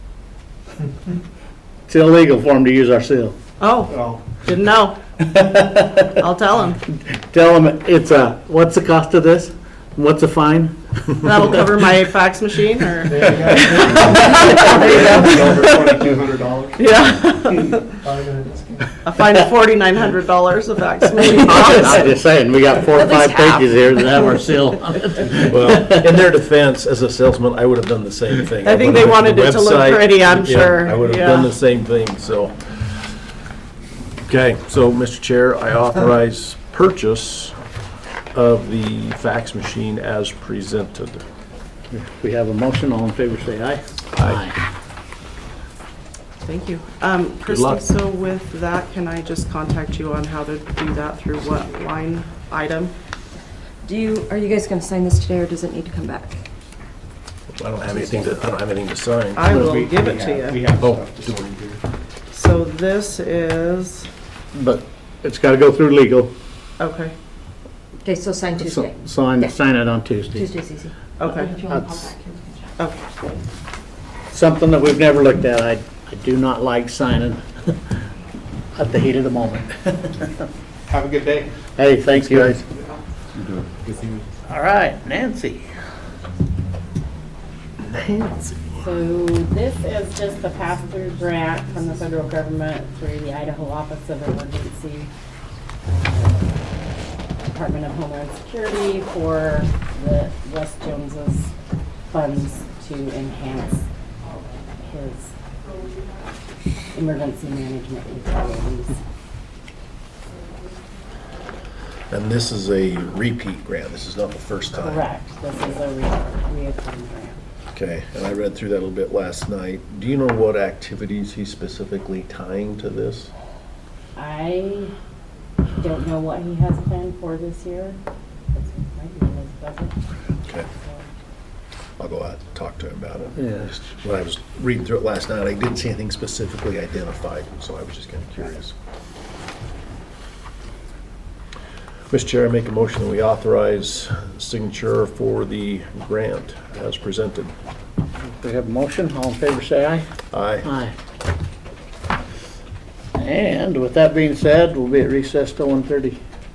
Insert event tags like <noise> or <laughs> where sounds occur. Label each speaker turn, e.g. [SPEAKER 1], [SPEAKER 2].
[SPEAKER 1] It's illegal for them to use our seal.
[SPEAKER 2] Oh,
[SPEAKER 3] Well,
[SPEAKER 2] didn't know. I'll tell him.
[SPEAKER 1] Tell them it's a, what's the cost of this? What's the fine?
[SPEAKER 2] That'll cover my fax machine or,
[SPEAKER 3] <laughs>
[SPEAKER 2] <laughs>
[SPEAKER 3] there you go. Over twenty-two hundred dollars.
[SPEAKER 2] yeah.
[SPEAKER 3] Five minutes.
[SPEAKER 2] I find forty-nine hundred dollars a fax
[SPEAKER 1] <laughs>
[SPEAKER 2] machine.
[SPEAKER 1] I'm just saying, we got four or
[SPEAKER 2] At least
[SPEAKER 1] five
[SPEAKER 2] half.
[SPEAKER 1] pages here that have our seal <laughs> on it.
[SPEAKER 4] Well, in their defense, as a salesman, I would have done the same thing.
[SPEAKER 2] I think they
[SPEAKER 4] would've
[SPEAKER 2] wanted
[SPEAKER 4] looked at
[SPEAKER 2] it to look
[SPEAKER 4] the website.
[SPEAKER 2] pretty, I'm
[SPEAKER 4] Yeah,
[SPEAKER 2] sure.
[SPEAKER 4] I would have
[SPEAKER 2] Yeah.
[SPEAKER 4] done the same thing, so. Okay, so, Mr. Chair, I authorize purchase of the fax machine as presented.
[SPEAKER 1] We have a motion, all in favor, say aye. Aye.
[SPEAKER 2] Thank you. Um, Christie,
[SPEAKER 4] luck.
[SPEAKER 2] so with that, can I just contact you on how to do that through what line item?
[SPEAKER 5] Do you, are you guys gonna sign this today, or does it need to come back?
[SPEAKER 4] I don't have anything to, I don't have anything to sign.
[SPEAKER 2] I
[SPEAKER 3] We-
[SPEAKER 2] will give
[SPEAKER 3] we
[SPEAKER 2] it
[SPEAKER 3] have-
[SPEAKER 2] to
[SPEAKER 3] We
[SPEAKER 2] you.
[SPEAKER 3] have
[SPEAKER 4] Oh,
[SPEAKER 3] stuff to sign here.
[SPEAKER 2] So this is,
[SPEAKER 1] But it's got to go through legal.
[SPEAKER 2] okay,
[SPEAKER 5] Okay, so sign Tuesday.
[SPEAKER 1] Sign, sign it on Tuesday.
[SPEAKER 5] Tuesday's easy.
[SPEAKER 2] okay,
[SPEAKER 5] If you wanna pop
[SPEAKER 1] That's-
[SPEAKER 5] back, you can check.
[SPEAKER 2] okay.
[SPEAKER 1] Something that we've never looked at. I, I do not like signing <laughs> at the heat of the moment.
[SPEAKER 3] Have a good day.
[SPEAKER 1] Hey, thanks, guys. All right, Nancy.
[SPEAKER 6] So this is just the pass-through grant from the federal government through the Idaho Office of Emergency Department of Homeland Security for the Wes Jones's funds to enhance his emergency management capabilities.
[SPEAKER 4] And this is a repeat grant, this is not the first time.
[SPEAKER 6] Correct, this is a re- reoccurring grant.
[SPEAKER 4] Okay, and I read through that a little bit last night. Do you know what activities he's specifically tying to this?
[SPEAKER 6] I don't know what he has planned for this year. That's might be in his budget,
[SPEAKER 4] Okay.
[SPEAKER 6] so.
[SPEAKER 4] I'll go out and talk to him about it.
[SPEAKER 1] Yeah.
[SPEAKER 4] Just When I was reading through it last night, I didn't see anything specifically identified, so I was just kind of curious. Mr. Chair, I make a motion that we authorize signature for the grant as presented.
[SPEAKER 1] We have a motion, all in favor, say aye.
[SPEAKER 4] Aye.
[SPEAKER 1] Aye. And with that being said, we'll be at recess till 1:30.